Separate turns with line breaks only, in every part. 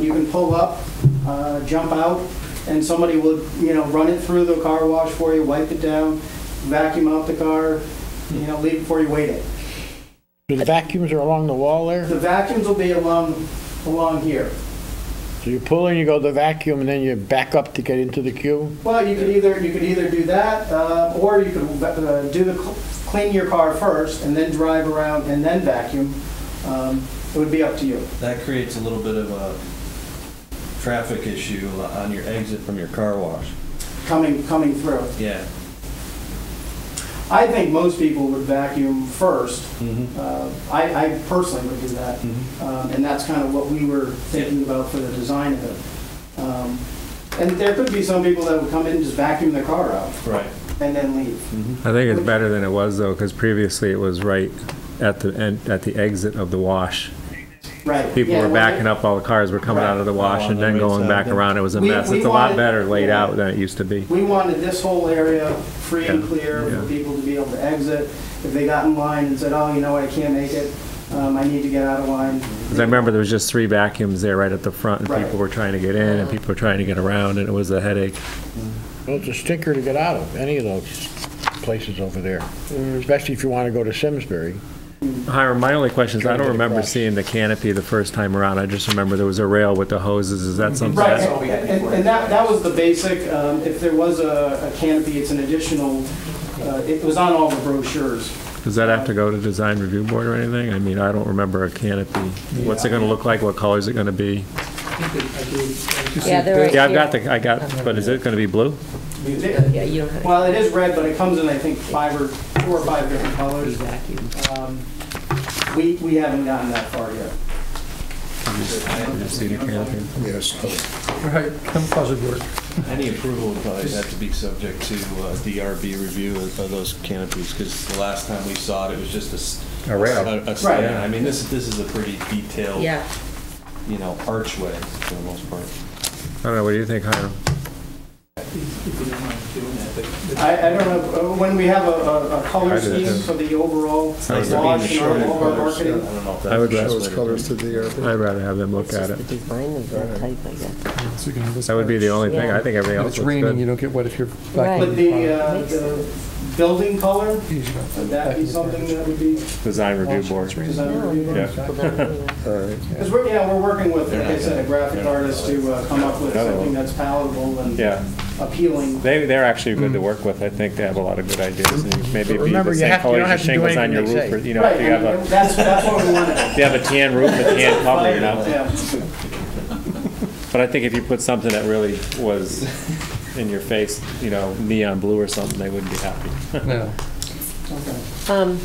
You can pull up, uh, jump out, and somebody will, you know, run it through the car wash for you, wipe it down, vacuum out the car, you know, leave it before you wait it.
The vacuums are along the wall there,
The vacuums will be along, along here.
so you pull in, you go to the vacuum, and then you back up to get into the queue?
Well, you could either, you could either do that, uh, or you could uh, do the, cl- clean your car first and then drive around and then vacuum. Um, It would be up to you.
That creates a little bit of a traffic issue on your exit from your car wash.
coming, coming through.
Yeah.
I think most people would vacuum first.
Mhm.
Mm-hmm.
Uh, I, I personally would do that.
Mhm.
Um, And that's kind of what we were thinking about for the design of it. Um, And there could be some people that would come in and just vacuum their car out
Right.
and then leave.
I think it's better than it was though, because previously it was right at the end, at the exit of the wash.
Right.
People
Yeah,
were
when I-
backing up, all the cars were coming out of the wash
Oh, on
and
the
then
right
going
side
back
then.
around. It was a
We-
mess.
we
It's a lot
wanted-
better laid
yeah.
out than it used to be.
We wanted this whole area free and
Yeah,
clear for
yeah.
people to be able to exit. If they got in line and said, oh, you know what, I can't make it, um, I need to get out of line.
Because I remember there was just three vacuums there right at the front and
Right.
people were trying to get in and people were trying to get around and it was a headache.
Well, it's a stinker to get out of, any of those places over there, especially if you want to go to Simsbury.
Hiram, my only question is, I
Trying to get
don't remember
across.
seeing the canopy the first time around. I just remember there was a rail with the hoses. Is that something?
Right,
that's-
and, and- and that, that was the basic, um, if there was a a canopy, it's an additional, uh, it was on all the brochures.
Does that have to go to design review board or anything? I mean, I don't remember a canopy. What's it gonna look like? What color is it gonna be?
Yeah, they're right
Yeah, I've got
here.
the, I got, but is it gonna be blue?
Yeah, you don't have to
Well, it is red, but it comes in, I think, five or, four or five different colors.
vacuum.
Um, We, we haven't gotten that far yet.
You see the canopy?
Right, camouflage would work.
Any approval would probably have to be subject to uh, DRB review of of those canopies, because the last time we saw it, it was just a. s-
A rail.
a- a stand.
Right.
I mean, this, this is a pretty detailed,
Yeah,
you know, archway for the most part.
I don't know, what do you think, Hiram?
I, I don't know, uh, when we have a, a a
I
color scheme
did too.
for the overall
Nice to be
launch and our-
showing
all our
colours. I
marketing.
don't know if
I
that's
would
the
rather-
best way to do it.
Colors to the,
I'd rather have them look
it's
at
just
it.
the design of the type, I guess.
uh, so we can have this
That would be the
arch.
only thing. I think everything
If
else
it's
looks
raining, you
good.
don't get wet if you're
Right.
But
vacuuming.
the, uh, the building color,
Easy enough.
would that be something that would be
Design
Oh,
review board.
presented to you?
Yeah.
Well, that anyway.
Because we're, yeah, we're working with, like I said, a graphic artist to uh, come up with
Another one.
something that's palatable and
Oh. Yeah,
appealing.
they, they're actually good to work with. I think they have a lot of good ideas. and Maybe it'd be
Remember,
the
you
same
have to- you don't
colors as
have to do
shingles on your
anything they
roof. or,
say.
You know,
Right,
if you have
I
a,
mean, that's, that's what we wanted.
if you have a tan roof, a tan cover, you know?
Yeah.
But I think if you put something that really was in your face, you know, neon blue or something, they wouldn't be happy.
No.
Okay.
Um,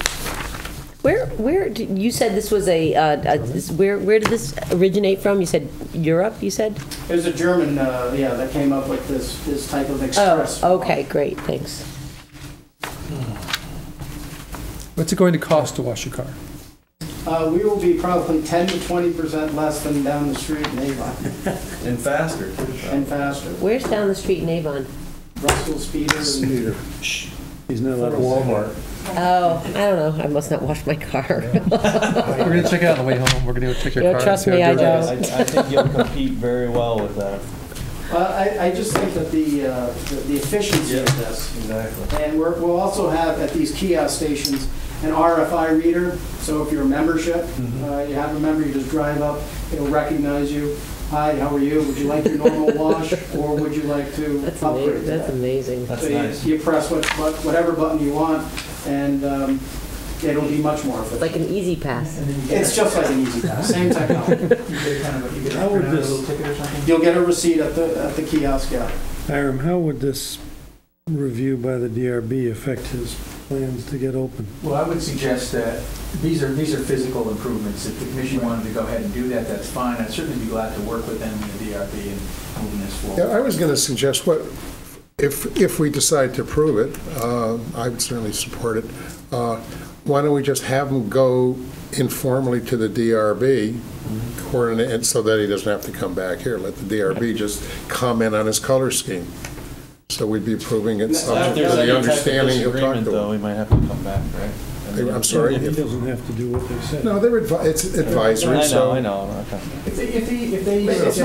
Where, where, d- you said this was a, uh, a- this- where, where did this originate from? You said Europe, you said?
There's a German, uh, yeah, that came up with this, this type of
Oh,
express.
okay, great, thanks.
What's it going to cost to wash your car?
Uh, We will be probably 10 to 20% less than down the street in Avon
And faster.
and faster.
Where's down the street in Avon?
Russell Speeder and
He's not allowed to Walmart.
Oh, I don't know, I must not wash my car.
We're gonna check it out on the way home. We're gonna go check your
Yeah,
car. and
trust
see how
me, I
dirty it
don't.
is.
I, I think you'll compete very well with that.
Well, uh, I, I just think that the, uh, the the efficiency of this,
Exactly.
and we're, we'll also have at these kiosk stations an RFI reader, so if you're a membership, uh, you have a member, you just drive up, it'll recognize you. Hi, how are you? Would you like your normal wash, or would you like to
That's
upgrade
amazing,
to
that's
that?
amazing.
That's
So you-
nice.
You press what, what- whatever button you want, and um, it'll be much more efficient.
Like an easy pass.
It's just like an easy pass, same technology.
How would this,
You'll get a receipt at the, at the kiosk, yeah.
Hiram, how would this review by the DRB affect his plans to get open?
Well, I would suggest that, these are, these are physical improvements. If the commission wanted to go ahead and do that, that's fine. I'd certainly be glad to work with them and the DRB in moving this
Yeah,
forward.
I was going to suggest, what, if, if we decide to approve it, um, I would certainly support it, uh, why don't we just have him go informally to the DRB, coordinate, and so that he doesn't have to come back here, let the DRB just comment on his color scheme. So we'd be approving
Now,
it
If
subject to
there's any
the
type of
understanding he'll talk
disagreement,
to
though,
him.
we might have to come back, right?
I'm sorry.
He
if-
doesn't have to do what they said.
No, they're, advi- it's advisory, so.
I know, I know. Okay.
If they, if they, if they.
Wait, it's
suggest-